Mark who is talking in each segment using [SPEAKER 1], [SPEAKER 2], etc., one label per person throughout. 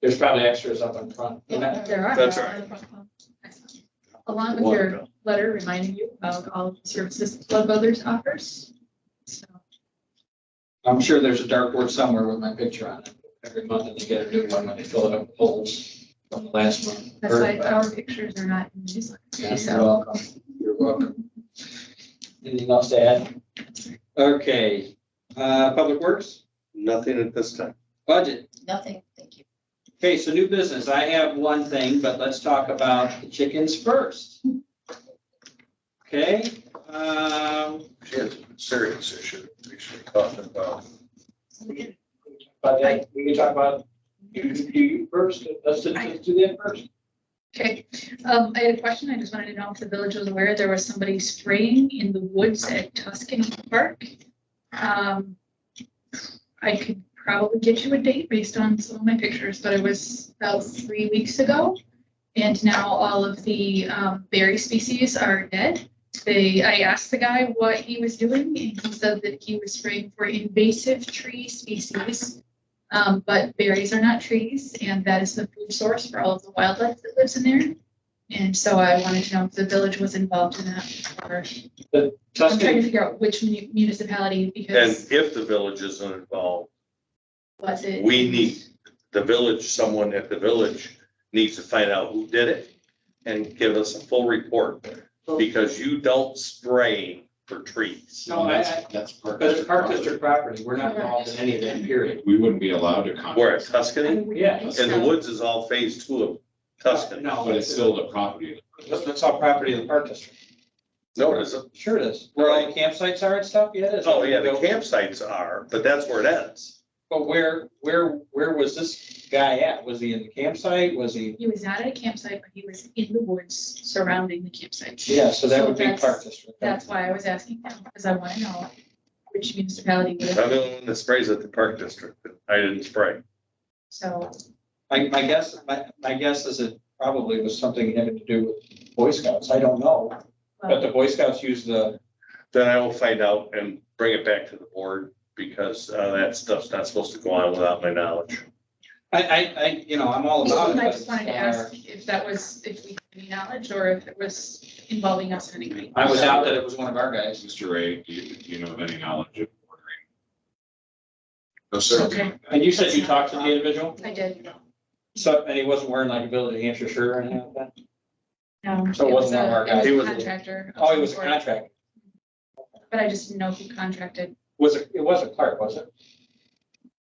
[SPEAKER 1] There's probably extras up in front.
[SPEAKER 2] Yeah, There are.
[SPEAKER 3] That's
[SPEAKER 2] Excellent. Along with your letter reminding you about all of the services Club Others offers. So
[SPEAKER 1] I'm sure there's a dartboard somewhere with my picture on it. Every month and they get a new one when they fill it up with holes from the last month.
[SPEAKER 2] that's why our pictures are not in the newsletter.
[SPEAKER 1] Yes,
[SPEAKER 2] So
[SPEAKER 1] You're welcome. You're welcome. Anything else to add? Okay, uh, Public Works,
[SPEAKER 3] Nothing at this time.
[SPEAKER 1] budget.
[SPEAKER 4] Nothing, thank you.
[SPEAKER 1] Okay, so new business. I have one thing, but let's talk about the chickens first. Okay, um,
[SPEAKER 3] She has a serious issue we should be talking about.
[SPEAKER 1] but I- we can talk about you, you you first. Let's do let's do that first.
[SPEAKER 2] Okay, um, I had a question. I just wanted to know if the village was aware there was somebody spraying in the woods at Tuscany Park. Um, I could probably get you a date based on some of my pictures, but it was about three weeks ago. And now all of the, um, berry species are dead. They, I asked the guy what he was doing and he said that he was spraying for invasive tree species. Um, but berries are not trees, and that is the food source for all of the wildlife that lives in there. And so I wanted to know if the village was involved in that, or I'm trying to
[SPEAKER 1] Tuscany,
[SPEAKER 2] figure out which mu- municipality,
[SPEAKER 3] And
[SPEAKER 2] because
[SPEAKER 3] if the village isn't involved,
[SPEAKER 2] was it?
[SPEAKER 3] we need, the village, someone at the village needs to find out who did it and give us a full report because you don't spray for trees.
[SPEAKER 1] no, I, I,
[SPEAKER 5] That's park.
[SPEAKER 1] because it's park district property. We're not involved in any of that period.
[SPEAKER 5] We wouldn't be allowed to contact.
[SPEAKER 3] Where at Tuscany?
[SPEAKER 1] Yeah,
[SPEAKER 3] And the woods is all phase two of Tuscany.
[SPEAKER 1] No,
[SPEAKER 5] But it's still the property.
[SPEAKER 1] That's, that's all property of the park district.
[SPEAKER 3] No, it isn't.
[SPEAKER 1] Sure it is. Where all the campsites are and stuff, yeah, it is.
[SPEAKER 3] Oh, yeah, the campsites are, but that's where it ends.
[SPEAKER 1] But where, where, where was this guy at? Was he in the campsite? Was he?
[SPEAKER 2] He was not at a campsite, but he was in the woods surrounding the campsite.
[SPEAKER 1] Yeah, so that
[SPEAKER 2] So
[SPEAKER 1] would be
[SPEAKER 2] that's-
[SPEAKER 1] park district.
[SPEAKER 2] That's why I was asking him, because I want to know which municipality,
[SPEAKER 3] I'm
[SPEAKER 2] did it.
[SPEAKER 3] the one that sprays at the park district. I didn't spray.
[SPEAKER 2] so
[SPEAKER 1] My, my guess, my, my guess is it probably was something having to do with Boy Scouts. I don't know. But the Boy Scouts use the,
[SPEAKER 3] Then I will find out and bring it back to the board because uh, that stuff's not supposed to go on without my knowledge.
[SPEAKER 1] I, I, I, you know, I'm all about it.
[SPEAKER 2] I
[SPEAKER 1] but uh,
[SPEAKER 2] just wanted to
[SPEAKER 1] it's
[SPEAKER 2] ask if that was, if we had any knowledge, or if it was involving us in any way.
[SPEAKER 1] our- I was out that it was one of our guys.
[SPEAKER 5] Mr. Ray, do you, do you know of any knowledge of ordering? No,
[SPEAKER 2] Okay.
[SPEAKER 1] And you said you talked to the individual?
[SPEAKER 2] I did,
[SPEAKER 1] So, and he wasn't wearing like a Village of Hampshire shirt or anything like that?
[SPEAKER 2] no.
[SPEAKER 1] So Oh, it wasn't one of our guys.
[SPEAKER 2] It
[SPEAKER 3] He
[SPEAKER 2] was
[SPEAKER 3] was
[SPEAKER 2] a
[SPEAKER 3] a-
[SPEAKER 2] contractor. of
[SPEAKER 1] Oh, he was a
[SPEAKER 2] some sort,
[SPEAKER 1] contractor.
[SPEAKER 2] But I just didn't know who contracted.
[SPEAKER 1] Was it, it wasn't Clark, was it?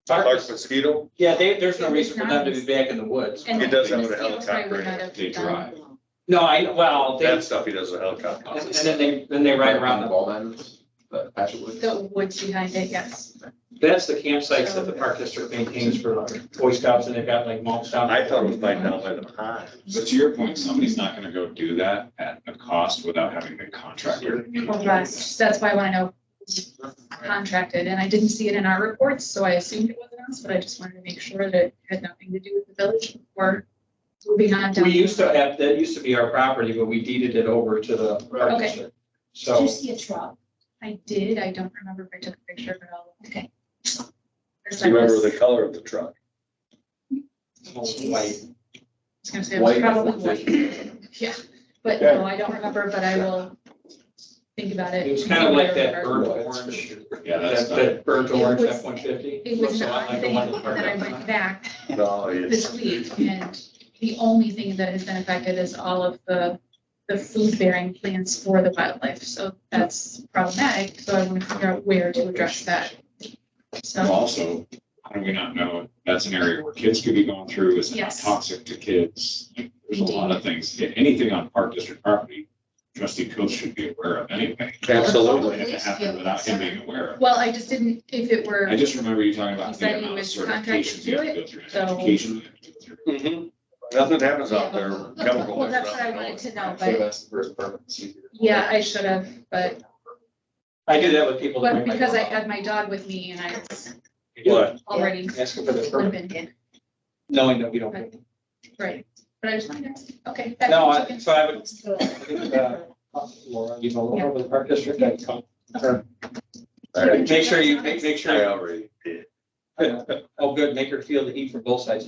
[SPEAKER 3] Clark mosquito,
[SPEAKER 1] Yeah, they, there's no reason for them to be back in the woods.
[SPEAKER 2] And
[SPEAKER 3] He does have
[SPEAKER 2] the
[SPEAKER 3] a
[SPEAKER 2] mosquito spray would not have
[SPEAKER 5] They
[SPEAKER 2] done-
[SPEAKER 5] drive.
[SPEAKER 1] No, I, well, they,
[SPEAKER 3] that stuff he does with helicopter.
[SPEAKER 1] and and then they, then they ride around the
[SPEAKER 5] ball diamonds, the patch of wood.
[SPEAKER 2] The woods behind it, yes.
[SPEAKER 1] That's the campsites that the park district maintains for Boy Scouts and they've got like mulch down.
[SPEAKER 3] I thought it was by down by the pond.
[SPEAKER 5] But to your point, somebody's not gonna go do that at a cost without having the contractor.
[SPEAKER 2] Well, that's, that's why I want to know who contracted, and I didn't see it in our reports, so I assumed it wasn't us, but I just wanted to make sure that it had nothing to do with the village or moving on down.
[SPEAKER 1] We used to have, that used to be our property, but we deeded it over to the park
[SPEAKER 2] Okay.
[SPEAKER 1] district.
[SPEAKER 4] Did you
[SPEAKER 1] So,
[SPEAKER 4] see a truck?
[SPEAKER 2] I did, I don't remember if I took a picture of it all.
[SPEAKER 4] Okay.
[SPEAKER 2] First
[SPEAKER 3] Do
[SPEAKER 2] I
[SPEAKER 3] you
[SPEAKER 2] was,
[SPEAKER 3] remember
[SPEAKER 2] I
[SPEAKER 3] the color of the truck?
[SPEAKER 1] like,
[SPEAKER 2] was gonna say, it was
[SPEAKER 5] White.
[SPEAKER 2] probably white, yeah, but no, I don't remember, but I will think about it.
[SPEAKER 1] it was kind of like
[SPEAKER 2] Remember.
[SPEAKER 1] that burnt orange,
[SPEAKER 5] Yeah,
[SPEAKER 1] that,
[SPEAKER 5] that's not,
[SPEAKER 1] that burnt orange
[SPEAKER 2] It
[SPEAKER 1] F
[SPEAKER 2] was-
[SPEAKER 1] one fifty.
[SPEAKER 2] It was an odd
[SPEAKER 1] like the
[SPEAKER 2] thing
[SPEAKER 1] one in the park.
[SPEAKER 2] that I went back
[SPEAKER 3] No, it's,
[SPEAKER 2] this week, and the only thing that has been affected is all of the, the food-bearing plants for the wildlife, so that's problematic, so I want to figure out where to address that.
[SPEAKER 5] Well,
[SPEAKER 2] So,
[SPEAKER 5] also, how do we not know, that's an area where kids could be going through, it's not
[SPEAKER 2] Yes.
[SPEAKER 5] toxic to kids. Like, There's a lot of things, Yeah, anything on park district property, trustee Coe should be aware of anyway.
[SPEAKER 3] absolutely.
[SPEAKER 5] And it happened without him being aware of. it.
[SPEAKER 2] well, I just didn't, if it were.
[SPEAKER 5] I just remember you talking about
[SPEAKER 2] He said
[SPEAKER 5] the
[SPEAKER 2] he
[SPEAKER 5] amount of
[SPEAKER 2] was contracted
[SPEAKER 5] certifications
[SPEAKER 2] to
[SPEAKER 5] you
[SPEAKER 2] do
[SPEAKER 5] have to go through,
[SPEAKER 2] so-
[SPEAKER 5] education. you have to go through.
[SPEAKER 3] Mhm. Nothing happens out there. Chemical.
[SPEAKER 2] Mm-hmm. Well, that's what I wanted to know,
[SPEAKER 5] Should've
[SPEAKER 2] but,
[SPEAKER 5] asked the first permit.
[SPEAKER 2] yeah, I should have, but,
[SPEAKER 1] I do that with people. that
[SPEAKER 2] but
[SPEAKER 1] bring, like,
[SPEAKER 2] because I had my dog with me and I was
[SPEAKER 3] What?
[SPEAKER 2] already
[SPEAKER 1] Asking for the permit,
[SPEAKER 2] limping,
[SPEAKER 1] knowing that we don't. get it.
[SPEAKER 2] right, but I just wanted to, okay. that-
[SPEAKER 1] No, I, so I would,
[SPEAKER 4] Let's go.
[SPEAKER 1] I think, uh, Laura, you know, Laura with the park district, I'd call her.
[SPEAKER 3] All right.
[SPEAKER 1] Make sure you, make, make
[SPEAKER 3] I
[SPEAKER 1] sure,
[SPEAKER 3] already did.
[SPEAKER 1] oh, good, make her feel the heat from both sides.